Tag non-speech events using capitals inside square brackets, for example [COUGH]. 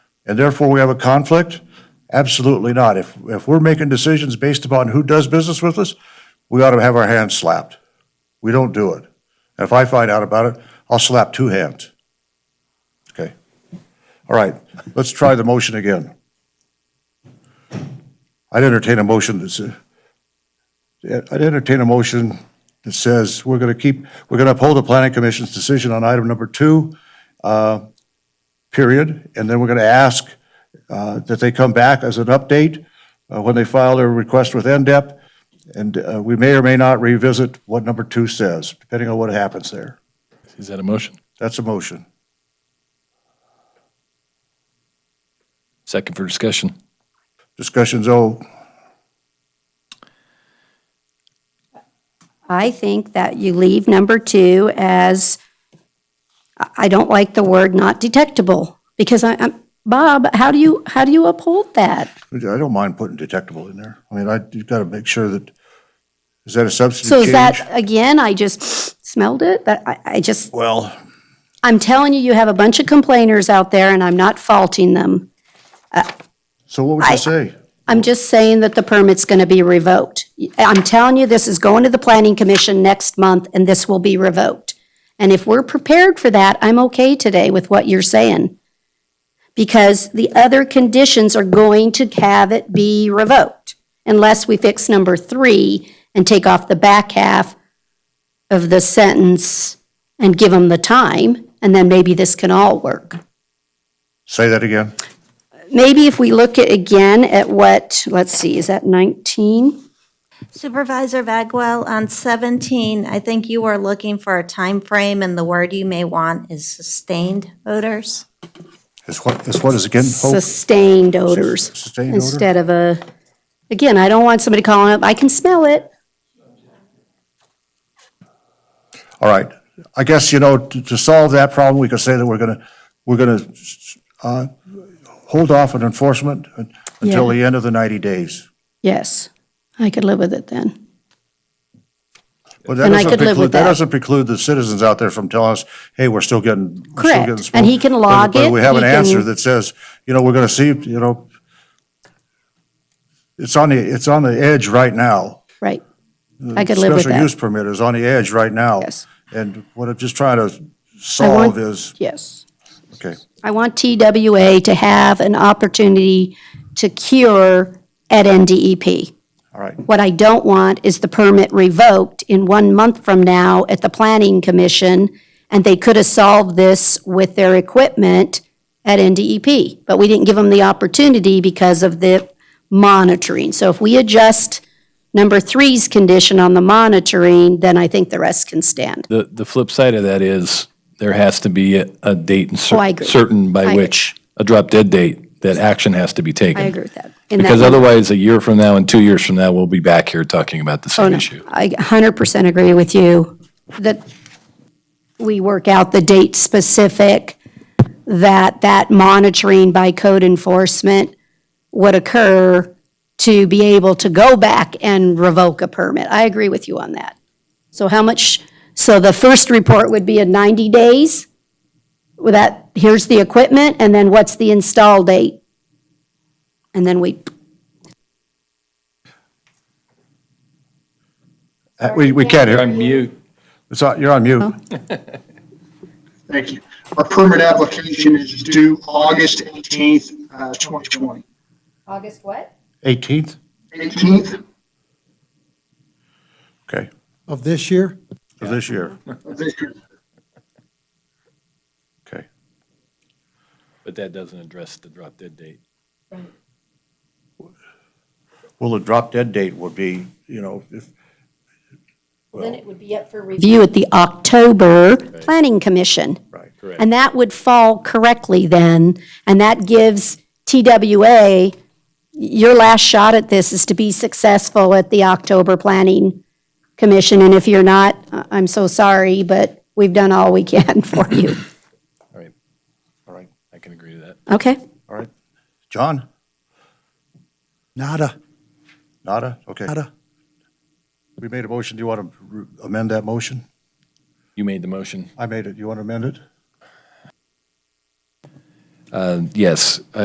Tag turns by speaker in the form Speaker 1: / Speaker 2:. Speaker 1: and therefore we have a conflict? Absolutely not. If, if we're making decisions based upon who does business with us, we ought to have our hands slapped. We don't do it. And if I find out about it, I'll slap two hands. Okay? All right, let's try the motion again. I'd entertain a motion that's, uh, I'd entertain a motion that says we're going to keep, we're going to uphold the planning commission's decision on item number two, uh, period, and then we're going to ask uh, that they come back as an update uh, when they file their request with NDEP, and uh, we may or may not revisit what number two says, depending on what happens there.
Speaker 2: Is that a motion?
Speaker 1: That's a motion.
Speaker 2: Second for discussion.
Speaker 1: Discussion's over.
Speaker 3: I think that you leave number two as, I- I don't like the word not detectable, because I, I'm, Bob, how do you, how do you uphold that?
Speaker 1: I don't mind putting detectable in there. I mean, I, you've got to make sure that, is that a
Speaker 3: So
Speaker 1: substantive
Speaker 3: is that,
Speaker 1: change?
Speaker 3: again, I just smelled it, that, I, I just,
Speaker 1: Well,
Speaker 3: I'm telling you, you have a bunch of complainers out there, and I'm not faulting them.
Speaker 1: so what would you say?
Speaker 3: I'm just saying that the permit's gonna be revoked. I'm telling you, this is going to the planning commission next month, and this will be revoked. And if we're prepared for that, I'm okay today with what you're saying. Because the other conditions are going to have it be revoked, unless we fix number three and take off the back half of the sentence and give them the time, and then maybe this can all work
Speaker 1: Say that again.
Speaker 3: maybe if we look at, again at what, let's see, is that 19?
Speaker 4: Supervisor Bagwell, on 17, I think you are looking for a time frame, and the word you may want is sustained odors.
Speaker 1: Is what, is what is again? Hope?
Speaker 3: Sustained odors
Speaker 1: Sustained odor?
Speaker 3: instead of a, again, I don't want somebody calling up, I can smell it.
Speaker 1: All right. I guess, you know, to, to solve that problem, we could say that we're gonna, we're gonna, uh, hold off on enforcement un- until
Speaker 3: Yeah.
Speaker 1: the end of the ninety days.
Speaker 3: Yes, I could live with it then.
Speaker 1: But that
Speaker 3: And I
Speaker 1: doesn't
Speaker 3: could live
Speaker 1: preclude-
Speaker 3: with
Speaker 1: That
Speaker 3: that.
Speaker 1: doesn't preclude the citizens out there from telling us, hey, we're still getting, we're still
Speaker 3: Correct.
Speaker 1: getting
Speaker 3: And
Speaker 1: smoke.
Speaker 3: he can
Speaker 1: But-
Speaker 3: log
Speaker 1: But
Speaker 3: it,
Speaker 1: we have an
Speaker 3: he
Speaker 1: answer
Speaker 3: can-
Speaker 1: that says, you know, we're gonna see, you know, it's on the, it's on the edge right now.
Speaker 3: Right. I could live with
Speaker 1: Special use
Speaker 3: that.
Speaker 1: permit is on the edge right now.
Speaker 3: Yes.
Speaker 1: And what I'm just trying to
Speaker 3: I want-
Speaker 1: solve is,
Speaker 3: Yes.
Speaker 1: okay.
Speaker 3: I want TWA to have an opportunity to cure at E NDEP.
Speaker 1: All right,
Speaker 3: What I don't want is the permit revoked in one month from now at the planning commission, and they could have solved this with their equipment at NDEP, but we didn't give them the opportunity because of the monitoring. So if we adjust number three's condition on the monitoring, then I think the rest can stand.
Speaker 2: The, the flip side of that is there has to be a, a date and cer-
Speaker 3: Oh, I agree.
Speaker 2: certain by
Speaker 3: agree.
Speaker 2: which, a drop dead date, that action has to be taken.
Speaker 3: I agree with that. In that
Speaker 2: Because
Speaker 3: one-
Speaker 2: otherwise, a year from now and two years from now, we'll be back here talking about the
Speaker 3: Oh,
Speaker 2: same issue.
Speaker 3: I hundred percent agree with you that we work out the date specific, that that monitoring by code enforcement would occur to be able to go back and revoke a permit. I agree with you on that. So how much, so the first report would be in ninety days? With that, here's the equipment, and then what's the install date? And then we,
Speaker 1: Uh, we, we can't hear.
Speaker 2: mute.
Speaker 1: It's on, you're on mute.
Speaker 5: [LAUGHS] Thank you. Our permit application is due August 18th, uh, 2020.
Speaker 3: August what?
Speaker 1: 18th?
Speaker 5: 18th
Speaker 1: Okay,
Speaker 6: of this year?
Speaker 1: of this year.
Speaker 5: [LAUGHS] of this year.
Speaker 1: Okay.
Speaker 2: But that doesn't address the drop dead date.
Speaker 1: Well, the drop dead date would be, you know, if,
Speaker 3: Then it would be up for review at the October Planning Commission.
Speaker 1: right.
Speaker 3: And that would fall correctly then, and that gives TWA, your last shot at this is to be successful at the October Planning Commission, and if you're not, I- I'm so sorry, but we've done all we can [LAUGHS] for you.
Speaker 2: All right,
Speaker 1: All right,
Speaker 2: I can agree to that.
Speaker 3: Okay?
Speaker 1: all right. John?
Speaker 6: Nada,
Speaker 1: Nada? Okay.
Speaker 6: nada.
Speaker 1: We made a motion. Do you want to amend that motion?
Speaker 2: You made the motion.
Speaker 1: I made it. You want to amend it?
Speaker 2: Uh, Yes,